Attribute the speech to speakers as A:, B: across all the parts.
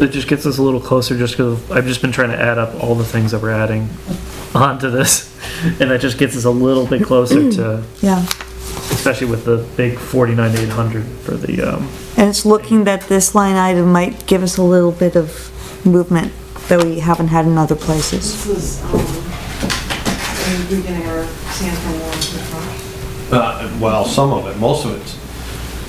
A: It just gets us a little closer just because I've just been trying to add up all the things that we're adding onto this. And that just gets us a little bit closer to,
B: yeah.
A: especially with the big 49,800 for the, um,
B: And it's looking that this line item might give us a little bit of movement that we haven't had in other places.
C: This was, um, in the beginning where Sam from Warren to the front.
D: Uh, Well, some of it, most of it.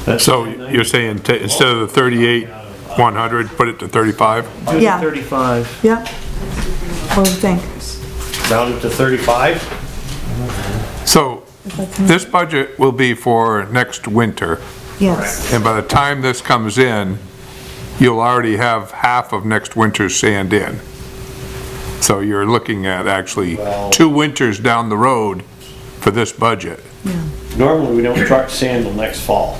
D: That's-
E: So you're saying, ta- instead of the 38, 100, put it to 35?
A: do the
B: Yeah.
A: 35.
B: Yep. What do you think?
D: Down to 35?
E: So this budget will be for next winter,
B: Yes,
E: and by the time this comes in, you'll already have half of next winter's sand in. So you're looking at actually two winters down the road for this budget,
D: Normally, we don't truck sand till next fall,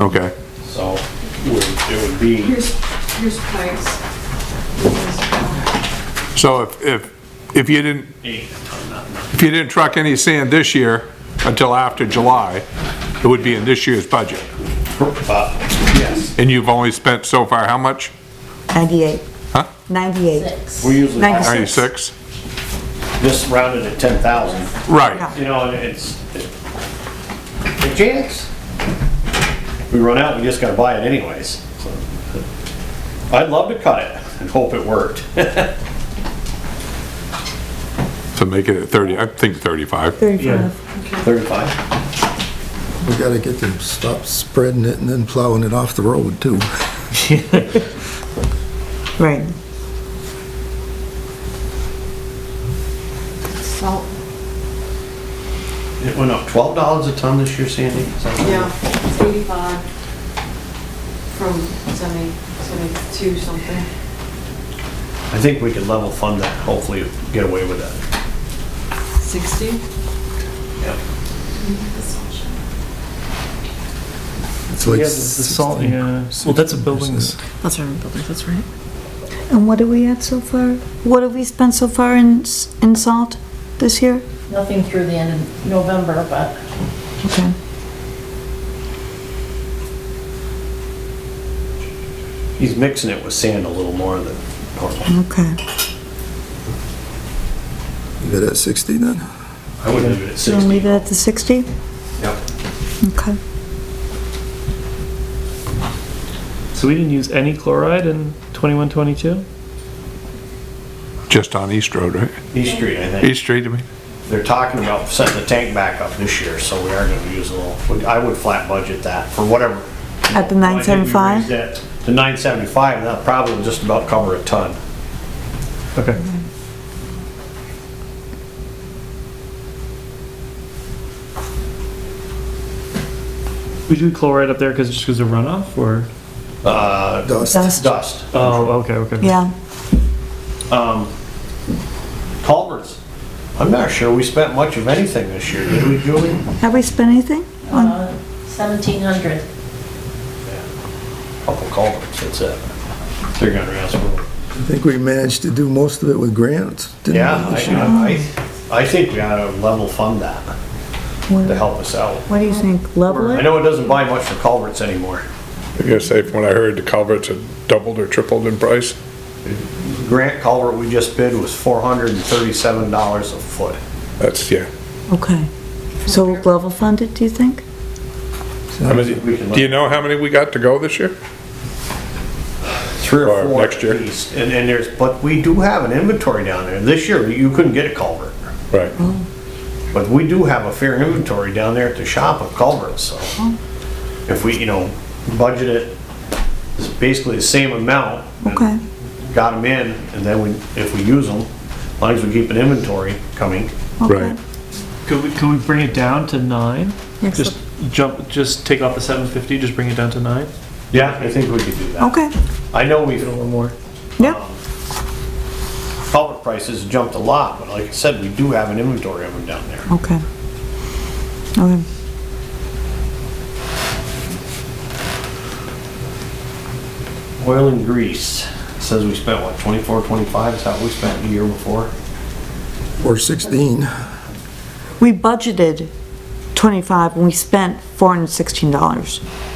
E: okay?
D: so we- it would be,
C: Here's, here's Pike's. This is, uh,
E: So if, if, if you didn't, if you didn't truck any sand this year until after July, it would be in this year's budget.
D: uh, yes,
E: And you've only spent so far how much?
B: 98.
E: Huh?
B: 98.
D: we usually,
B: Ninety six.
E: 96?
D: just rounded at 10,000.
E: Right,
D: You know, and it's, it- a chance. We run out, we just gotta buy it anyways. so. I'd love to cut it and hope it worked.
E: so make it at 30, I think 35.
B: 35.
D: 35?
F: We gotta get them, to stop spreading it and then plowing it off the road too.
B: Right.
C: Salt,
D: It went up $12 a ton this year, Sandy? Is that right?
C: yeah, it's eighty-five from seventy, seventy-two something.
D: I think we could level fund that, hopefully get away with that.
C: Sixty?
F: It's like
A: Yeah, the the salt,
F: 16.
A: yeah. Well, that's a buildings.
G: That's our buildings, that's right.
B: And what are we at so far? What have we spent so far in, s- in salt this year?
G: Nothing through the end of November, but
B: Okay.
D: He's mixing it with sand a little more than normal.
B: Okay.
F: You got that sixty then?
D: I would leave it at
B: So we'll
D: 60.
B: leave it at the 60?
D: Yep.
B: Okay.
A: So we didn't use any chloride in 21, 22?
E: Just on East Road, right?
D: East Street, I think.
E: East Street, I mean?
D: They're talking about setting the tank back up this year, so we are gonna use a little, I would flat budget that for whatever.
B: At the
D: Why didn't we
B: 975?
D: raise that to 975, and that probably will just about cover a ton.
A: Okay. We do chloride up there because, just because of runoff or?
D: Uh,
F: Dust.
B: Dust.
D: Dust.
A: Oh, okay, okay.
B: Yeah.
D: Culverts. I'm not sure we spent much of anything this year, did we, Julie?
B: Have we spent anything? on-
D: Uh,
G: seventeen hundred.
D: Couple culverts, that's it. 300 ounce.
F: I think we managed to do most of it with grants, didn't we?
D: Yeah, I, I, I think we ought to level fund that to help us out.
B: What do you think? Level
D: I
B: it?
D: know it doesn't buy much for culverts anymore.
E: I guess say, from what I heard, the culverts had doubled or tripled in price.
D: Grant culvert we just bid was four hundred and thirty-seven dollars a foot.
E: That's, yeah.
B: Okay. So we'll level fund it, do you think?
E: How many- Do you know how many we got to go this year?
D: Three
E: Or
D: or four
E: next
D: at
E: year.
D: least. And, and there's, but we do have an inventory down there. This year, you couldn't get a culvert.
E: Right.
D: But we do have a fair inventory down there at the shop of culverts, so. If we, you know, budget it, it's basically the same amount. and
B: Okay.
D: Got them in, and then we, if we use them, as long as we keep an inventory coming.
E: Right.
A: Could we, could we bring it down to nine?
B: Yes.
A: Just jump, just take off the 750, just bring it down to nine?
D: Yeah, I think we could do that.
B: Okay.
D: I know we've,
A: Get a little more.
B: Yeah.
D: culvert prices jumped a lot, but like I said, we do have an inventory of them down there.
B: Okay. Okay.
D: Oil and grease, says we spent what, 24, 25, is how we spent the year before?
F: Or sixteen.
B: We budgeted 25 and we spent $416.